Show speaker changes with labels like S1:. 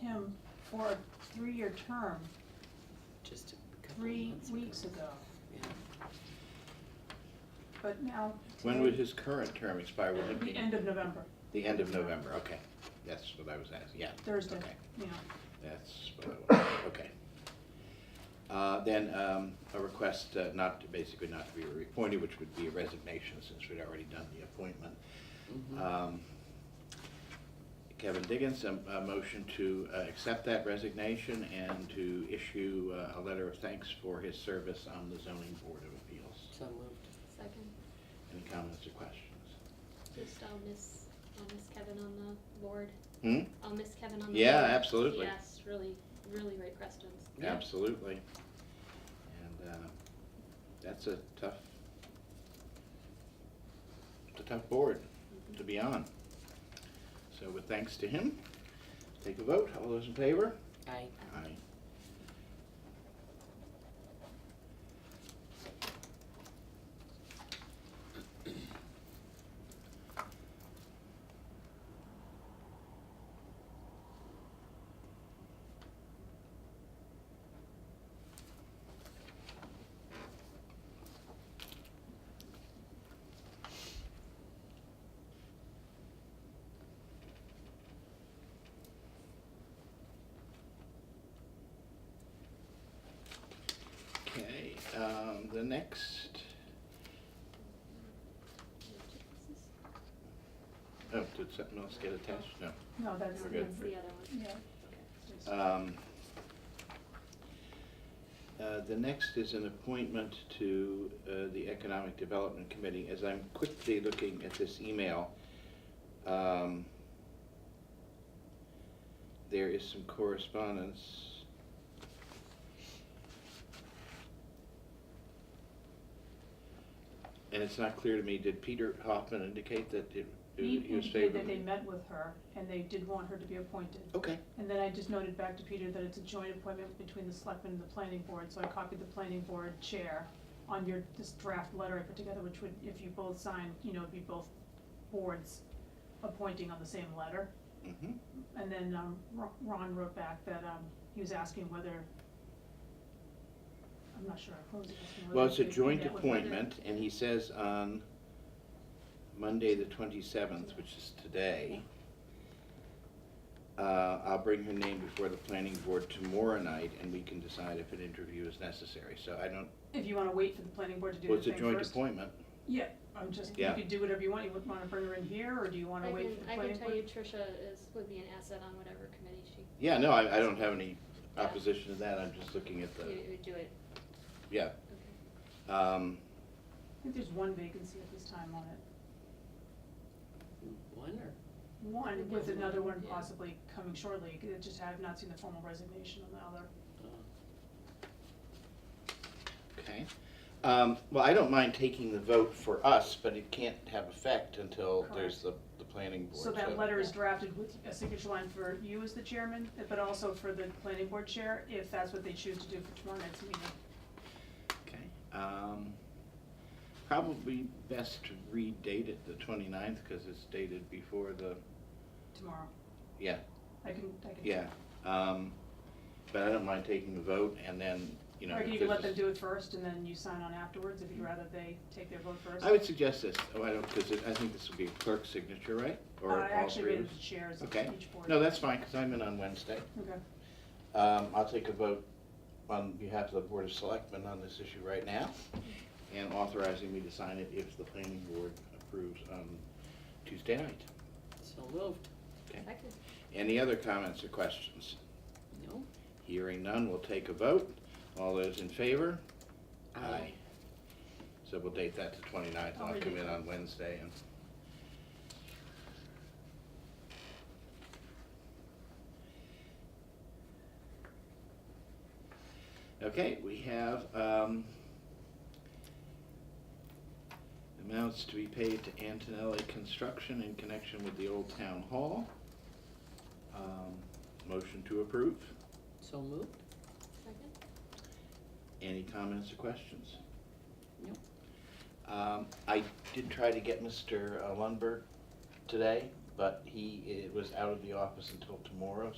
S1: him for a three-year term
S2: just a couple of
S1: three
S2: months ago.
S1: weeks ago,
S2: Yeah.
S1: but now.
S3: When would
S1: today-
S3: his current term expire? Would it
S1: The
S3: be
S1: end of November,
S3: the end of November? Okay, that's what I was asking, yeah.
S1: Thursday,
S3: Okay,
S1: yeah.
S3: that's what I was, okay. Uh, Then um, a request uh, not, to- basically not to be reappointed, which would be a resignation since we'd already done the appointment.
S1: Mm-hmm.
S2: Mhm.
S3: Um, Kevin Diggins, um, a a motion to uh, accept that resignation and to issue uh, a letter of thanks for his service on the zoning board of appeals.
S2: So moved.
S4: Second,
S3: Any comments or questions?
S4: just I'll miss, I'll miss Kevin on the board.
S3: Hmm?
S4: I'll miss Kevin on the board.
S3: Yeah, absolutely.
S4: He asks really, really great questions.
S2: Yeah.
S3: Absolutely. And uh, that's a tough, it's a tough board to be on. So with thanks to him, take a vote. All those in favor?
S2: Aye.
S3: Aye. Okay, um, the next, oh, did something else get attached? No.
S1: No, that's.
S3: We're
S4: That's
S3: good.
S4: the other one.
S1: Yeah.
S3: Um, uh, The next is an appointment to uh, the Economic Development Committee. As I'm quickly looking at this email, um, there is some correspondence. And it's not clear to me, did Peter Hoffman indicate that it
S1: He
S3: he
S1: indicated
S3: was
S1: that
S3: favorable?
S1: they met with her and they did want her to be appointed.
S3: Okay,
S1: And then I just noted back to Peter that it's a joint appointment between the selectmen and the planning board, so I copied the planning board chair on your, this draft letter I put together, which would, if you both sign, you know, it'd be both boards appointing on the same letter.
S3: hmm
S1: And then, um, Ro- Ron wrote back that, um, he was asking whether, I'm not sure, who was he asking? whether
S3: Well, it's a
S1: they- they
S3: joint
S1: met with whether-
S3: appointment, and he says on Monday, the twenty-seventh, which is today, uh, I'll bring her name before the planning board tomorrow night, and we can decide if an interview is necessary, so I don't,
S1: If you wanna wait for the planning board to do
S3: well,
S1: the
S3: it's a
S1: thing
S3: joint
S1: first.
S3: appointment.
S1: Yeah, I'm just, you
S3: Yeah.
S1: could do whatever you want, you would wanna bring her in here, or do you
S4: I
S1: wanna
S4: can,
S1: wait for the
S4: I
S1: planning
S4: can
S1: board?
S4: tell you Tricia is, would be an asset on whatever committee she,
S3: Yeah, no, I, I don't have any
S4: Yeah.
S3: opposition to that, I'm just looking at the,
S4: you would do it.
S3: yeah.
S4: Okay.
S3: Um,
S1: I think there's one vacancy at this time on it.
S2: Wonder.
S1: One,
S4: Maybe
S1: with
S4: one,
S1: another one
S2: yeah.
S1: possibly coming shortly, 'cause it just have not seen the formal resignation on the other.
S2: Uh,
S3: okay. Um, well, I don't mind taking the vote for us, but it can't have effect until there's the, the planning board,
S1: So that letter is drafted with a signature line for you as the chairman, but also for the planning board chair, if that's what they choose to do for tomorrow night's meeting.
S3: Okay, um, probably best to redate it the 29th because it's dated before the,
S1: Tomorrow,
S3: yeah,
S1: I can, I can.
S3: yeah. Um, but I don't mind taking the vote and then, you know.
S1: Or
S3: if
S1: you can let
S3: this
S1: them
S3: is-
S1: do it first and then you sign on afterwards, if you'd rather they take their vote first.
S3: I would suggest this, oh, I don't, because I think this would be a clerk's signature, right? Or
S1: Uh, I
S3: all
S1: actually
S3: three
S1: read
S3: of
S1: it
S3: us?
S1: the chairs of
S3: Okay,
S1: each board.
S3: no, that's fine because I'm in on Wednesday.
S1: Okay,
S3: Um, I'll take a vote on behalf of the Board of Selectmen on this issue right now and authorizing me to sign it if the planning board approves on Tuesday night.
S2: So moved.
S3: Okay.
S4: Second.
S3: Any other comments or questions?
S2: No?
S3: Hearing none, we'll take a vote. All those in favor? So we'll date that to 29th, and I'll come in on Wednesday and... Okay, we have um, amounts to be paid to Antonelli Construction in connection with the Old Town Hall. Um, Motion to approve.
S2: So moved?
S4: Second?
S3: Any comments or questions?
S2: No.
S3: Um, I did try to get Mr. Lundberg today, but he uh, was out of the office until tomorrow,